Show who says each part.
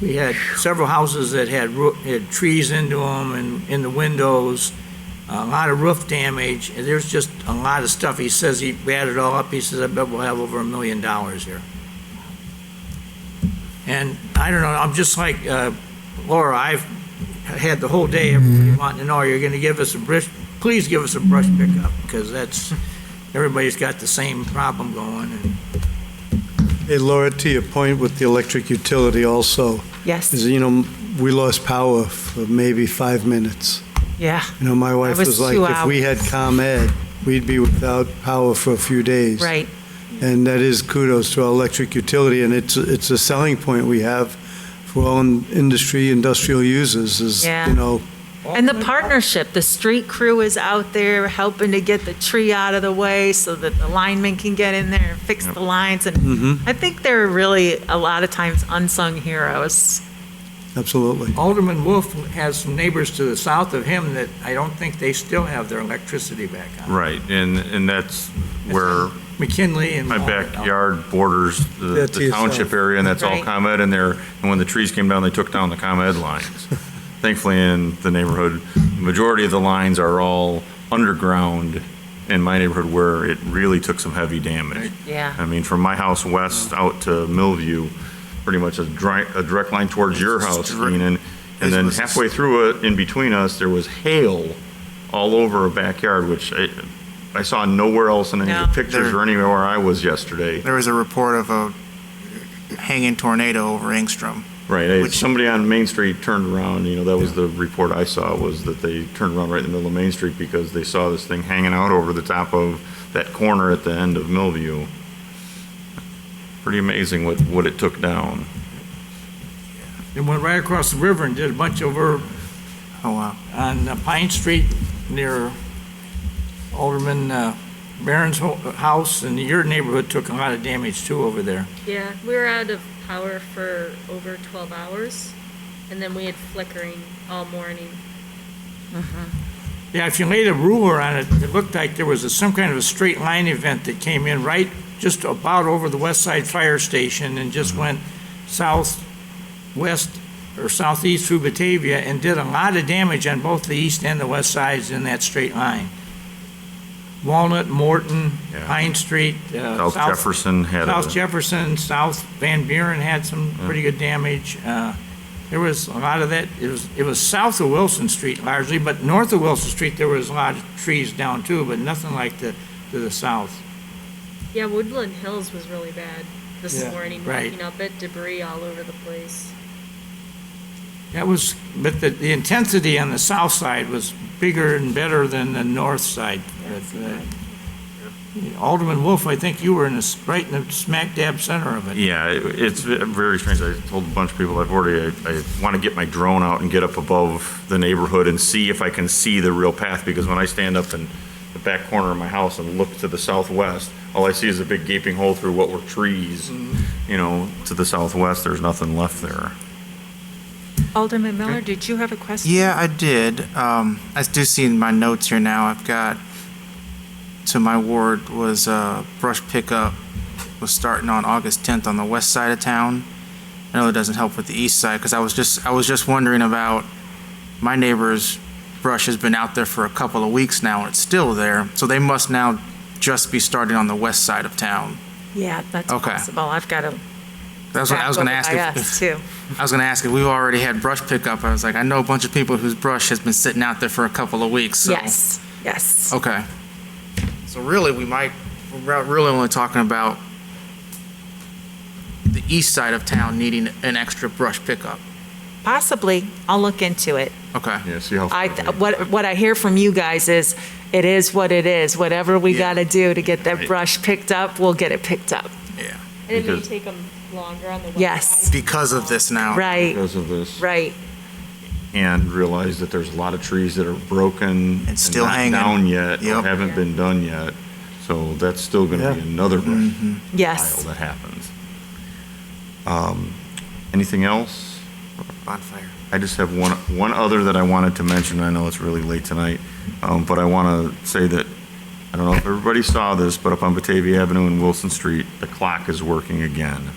Speaker 1: We had several houses that had, roo- had trees into them and in the windows, a lot of roof damage, and there's just a lot of stuff. He says he we added it all up, he says, I bet we'll have over a million dollars here. And I don't know, I'm just like uh, Laura, I've had the whole day, everybody wanting to know, you're gonna give us a brush, please give us a brush pickup, because that's, everybody's got the same problem going, and
Speaker 2: Hey Laura, to your point with the electric utility also, is,
Speaker 3: Yes,
Speaker 2: you know, we lost power for maybe five minutes.
Speaker 3: yeah,
Speaker 2: You know, my wife
Speaker 3: was
Speaker 2: was like,
Speaker 3: two
Speaker 2: if we had ComEd, we'd be without power for a few days.
Speaker 3: right.
Speaker 2: And that is kudos to our electric utility, and it's, it's a selling point we have for all in- industry, industrial users is,
Speaker 3: Yeah.
Speaker 2: you know,
Speaker 3: And the partnership, the street crew is out there helping to get the tree out of the way so that the linemen can get in there and fix the lines. And
Speaker 4: Mm-hmm.
Speaker 3: I think they're really, a lot of times, unsung heroes.
Speaker 2: absolutely.
Speaker 1: Alderman Wolf has some neighbors to the south of him that I don't think they still have their electricity back on.
Speaker 5: Right, and, and that's where
Speaker 1: McKinley and.
Speaker 5: my
Speaker 1: Walnut.
Speaker 5: backyard borders the-
Speaker 2: That's
Speaker 5: the township
Speaker 2: yourself.
Speaker 5: area, and that's all
Speaker 3: Right.
Speaker 5: ComEd in there. And when the trees came down, they took down the ComEd lines. Thankfully, in the neighborhood, the majority of the lines are all underground in my neighborhood where it really took some heavy damage.
Speaker 3: Yeah.
Speaker 5: I mean, from my house west out to Millview, pretty much a direct, a direct line towards your house, Keenan. And then halfway through it, in between us, there was hail all over a backyard, which I, I saw nowhere else in any of the
Speaker 3: No.
Speaker 5: pictures or anywhere I was yesterday.
Speaker 4: There was a report of a hanging tornado over Ingstrom.
Speaker 5: Right, I-
Speaker 4: Which-
Speaker 5: somebody on Main Street turned around, you know, that was the report I saw, was that they turned around right in the middle of Main Street because they saw this thing hanging out over the top of that corner at the end of Millview. Pretty amazing what, what it took down.
Speaker 1: They went right across the river and did a bunch over
Speaker 4: Oh, wow.
Speaker 1: on uh, Pine Street near Alderman uh, Barron's ho- house, and your neighborhood took a lot of damage too over there.
Speaker 6: Yeah, we were out of power for over 12 hours, and then we had flickering all morning.
Speaker 1: Yeah, if you laid a ruler on it, it looked like there was a- some kind of a straight line event that came in right just about over the west side fire station and just
Speaker 5: Mm-hmm.
Speaker 1: went southwest or southeast through Batavia and did a lot of damage on both the east and the west sides in that straight line. Walnut, Morton,
Speaker 5: Yeah.
Speaker 1: Pine Street, uh,
Speaker 5: South
Speaker 1: South,
Speaker 5: Jefferson had
Speaker 1: South
Speaker 5: a,
Speaker 1: Jefferson, South Van Buren had some pretty good damage. Uh, There was a lot of that, it was, it was south of Wilson Street largely, but north of Wilson Street, there was a lot of trees down too, but nothing like the, to the south.
Speaker 6: Yeah, Woodland Hills was really bad this
Speaker 1: Yeah,
Speaker 6: morning.
Speaker 1: right.
Speaker 6: Waking up, it debris all over the place.
Speaker 1: That was, but the, the intensity on the south side was bigger and better than the north side. Uh, Alderman Wolf, I think you were in the, s- right in the smack dab center of it.
Speaker 5: yeah, it- it's very strange. I told a bunch of people, I've already, I, I want to get my drone out and get up above the neighborhood and see if I can see the real path, because when I stand up in the back corner of my house and look to the southwest, all I see is a big gaping hole through what were trees, you know, to the southwest, there's nothing left there.
Speaker 3: Alderman Miller, did you have a question?
Speaker 4: Yeah, I did. Um, I do see in my notes here now, I've got, to my ward was, uh, brush pickup was starting on August tenth on the west side of town. I know it doesn't help with the east side, cause I was just, I was just wondering about, my neighbor's brush has been out there for a couple of weeks now, and it's still there, so they must now just be starting on the west side of town.
Speaker 3: Yeah, that's
Speaker 4: Okay.
Speaker 3: possible. I've got to.
Speaker 4: That's what I was gonna ask if- if,
Speaker 3: Too.
Speaker 4: I was going to ask if we've already had brush pickup. I was like, I know a bunch of people whose brush has been sitting out there for a couple of weeks. So. Oh.
Speaker 3: Yes, yes.
Speaker 4: Okay. So really, we might, we're really only talking about the east side of town needing an extra brush pickup.
Speaker 3: Possibly. I'll look into it.
Speaker 4: Okay.
Speaker 5: Yeah, see how.
Speaker 3: I, what, what I hear from you guys is, it is what it is. Whatever we
Speaker 4: Yeah.
Speaker 3: got to do to get that
Speaker 5: Right.
Speaker 3: brush picked up, we'll get it picked up.
Speaker 4: Yeah.
Speaker 6: And it may
Speaker 5: Because-
Speaker 6: take them longer on the west
Speaker 3: Yes.
Speaker 6: side.
Speaker 4: Because of this now.
Speaker 3: Right,
Speaker 5: Because of this,
Speaker 3: right.
Speaker 5: and realize that there's a lot of trees that are broken.
Speaker 4: still
Speaker 5: not
Speaker 4: hanging.
Speaker 5: Down yet, or
Speaker 4: Yep.
Speaker 5: haven't been done yet, so that's still gonna be
Speaker 2: Yeah.
Speaker 5: another brush
Speaker 4: Mm-hmm.
Speaker 5: pile
Speaker 3: Yes.
Speaker 5: that happens. Um, Anything else?
Speaker 4: Bonfire.
Speaker 5: I just have one, one other that I wanted to mention. I know it's really late tonight, um, but I want to say that, I don't know if everybody saw this, but up on Batavia Avenue and Wilson Street, the clock is working again.